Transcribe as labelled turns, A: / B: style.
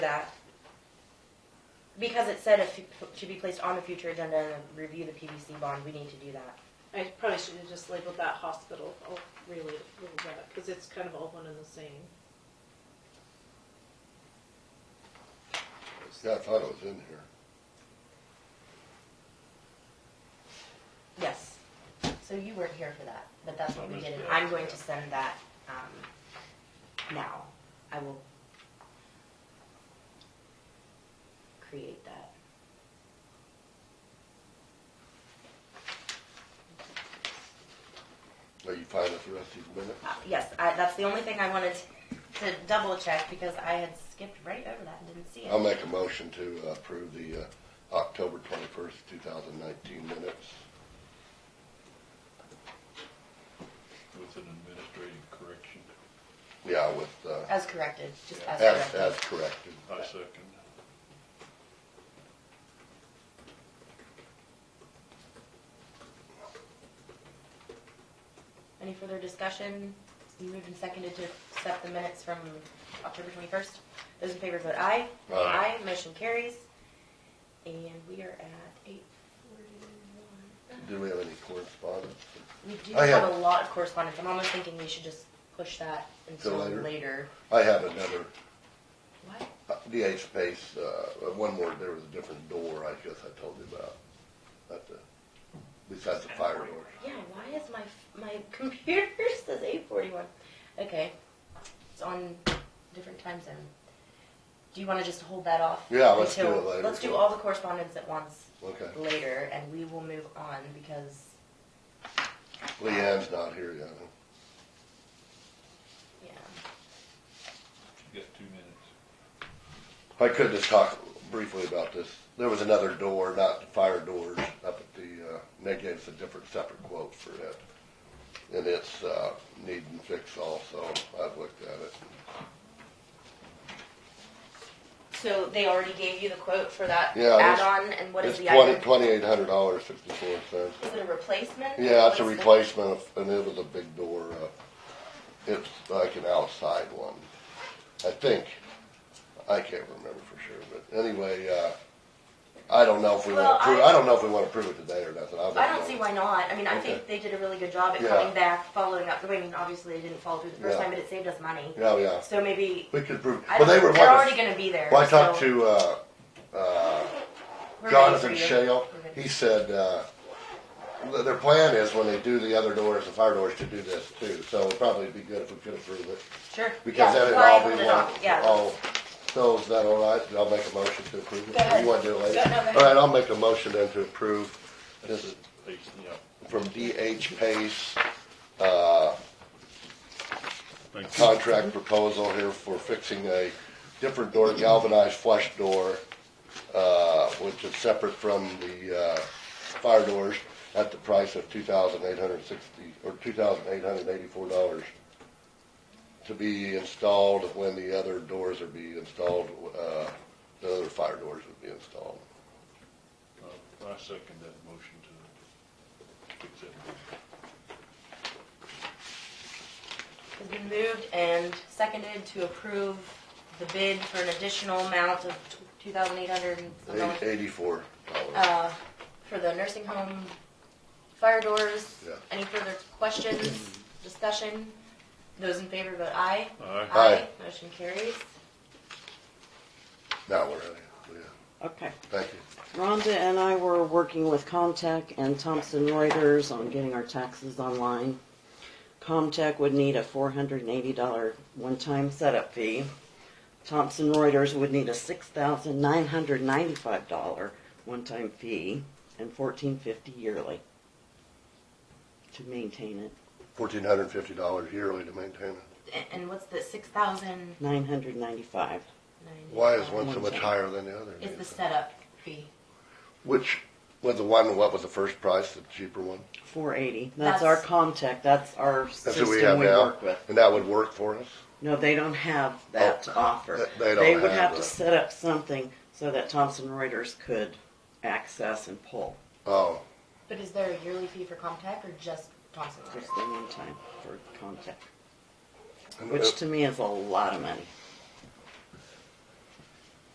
A: that. Because it said if it should be placed on the future agenda and then review the PVC bond, we need to do that.
B: I probably should have just labeled that hospital, oh, I'll relate it to that, because it's kind of all one and the same.
C: Yeah, I thought it was in here.
A: Yes. So you weren't here for that, but that's what
D: I
A: we
D: missed
A: did. and
D: that.
A: I'm going to send that, um, now. I will create that.
C: Are you fine with the rest of these minutes?
A: Uh, Yes, I, that's the only thing I wanted to double check because I had skipped right over that and didn't see it.
C: I'll make a motion to approve the uh, October twenty-first, two thousand nineteen minutes.
D: With an administrative correction,
C: Yeah, with, uh,
A: As corrected, just as
C: as,
A: corrected.
C: as corrected.
D: I second.
A: Any further discussion? You moved and seconded to accept the minutes from October twenty-first. Those in favor vote aye.
C: Aye.
A: motion carries. And we are at eight forty-one.
C: Do we have any correspondence?
A: We do
C: I
A: have
C: have-
A: a lot of correspondence. I'm almost thinking we should just push that until
C: later?
A: later.
C: I have another,
A: What?
C: uh, DA space, uh, one more, there was a different door, I guess I told you about. At the, besides the fire door.
A: Yeah, why is my, my computer says eight forty-one? Okay, it's on different time zone. Do you wanna just hold that off?
C: Yeah, let's do
A: until-
C: it later.
A: Let's do all the correspondence at once
C: Okay.
A: later and we will move on because,
C: Leanne's not here yet. huh?
A: yeah.
D: You got two minutes.
C: I could just talk briefly about this. There was another door, not the fire doors, up at the, uh, and they gave us a different separate quote for it. And it's, uh, needing fix also. I've looked at it.
A: So they already gave you the quote for that
C: Yeah, there's-
A: add-on and what is
C: It's
A: the
C: twenty,
A: item?
C: twenty-eight hundred dollars, sixty-four cents.
A: Is it a replacement?
C: Yeah, it's a replacement of, and it was a big door, uh, it's like an outside one, I think. I can't remember for sure, but anyway, uh, I don't know if we
A: Well,
C: wanna prove,
A: I-
C: I don't know if we wanna prove it today or nothing. I'll
A: I
C: know.
A: don't see why not. I mean, I think they did a really good job at
C: Yeah.
A: coming back, following up. I mean, obviously they didn't follow through the first
C: Yeah.
A: time, but it saved us money.
C: Yeah, Oh, yeah,
A: So maybe
C: we could prove,
A: I
C: well, they
A: don't-
C: were
A: They're
C: wanting,
A: already gonna be there.
C: well, I talked
A: so
C: to, uh, uh,
A: we're ready for
C: Jonathan
A: you.
C: Shale,
A: We're ready.
C: he said, uh, th- their plan is when they do the other doors, the fire doors, to do this too, so it'd probably be good if we could approve it.
A: Sure.
C: Because
A: Yeah,
C: then it'd
A: why
C: all be
A: hold
C: one.
A: it off? Yeah.
C: Oh, so is that all right? I'll make a motion to approve
A: Go
C: it.
A: ahead.
C: You wanna do it later?
A: Go- no, go ahead.
C: All right, I'll make a motion then to approve this
D: Yeah.
C: from DH Pace, uh,
D: Thank you.
C: contract proposal here for fixing a different door, galvanized flush door, uh, which is separate from the, uh, fire doors at the price of two thousand eight hundred sixty, or two thousand eight hundred eighty-four dollars to be installed when the other doors are be installed, uh, the other fire doors would be installed.
D: Uh, I second that motion to fix that.
A: It's been moved and seconded to approve the bid for an additional amount of two thousand eight hundred and
C: Eighty- Eighty-four dollars.
A: uh, for the nursing home fire doors.
C: Yeah.
A: Any further questions, discussion? Those in favor vote aye.
D: Aye.
C: Aye.
A: Motion carries.
C: Now we're ready. Yeah,
E: Okay.
C: thank you.
E: Rhonda and I were working with Comtech and Thomson Reuters on getting our taxes online. Comtech would need a four hundred and eighty dollar one-time setup fee. Thomson Reuters would need a six thousand nine hundred ninety-five dollar one-time fee and fourteen fifty yearly to maintain it.
C: Fourteen hundred and fifty dollars yearly to maintain it.
A: A- And what's the six thousand
E: Nine hundred ninety-five.
A: nine?
C: Why is one so
E: One
C: much
E: ten.
C: higher than the other?
A: Is the setup fee.
C: Which was the one? What was the first price? The cheaper one.
E: Four eighty. That's our
A: That's-
E: Comtech. That's our
C: That's
E: system
C: what
E: we
C: we have now,
E: work with.
C: and that would work for us.
E: No, they don't have that to offer.
C: Oh, They- they don't
E: would
C: have
E: have, to
C: that.
E: set up something so that Thomson Reuters could access and pull
C: Oh,
A: But is there a yearly fee for Comtech or just Thomson
E: just
A: Reuters?
E: the one time for contact,
C: and
E: which
C: it-
E: to me is a lot of money.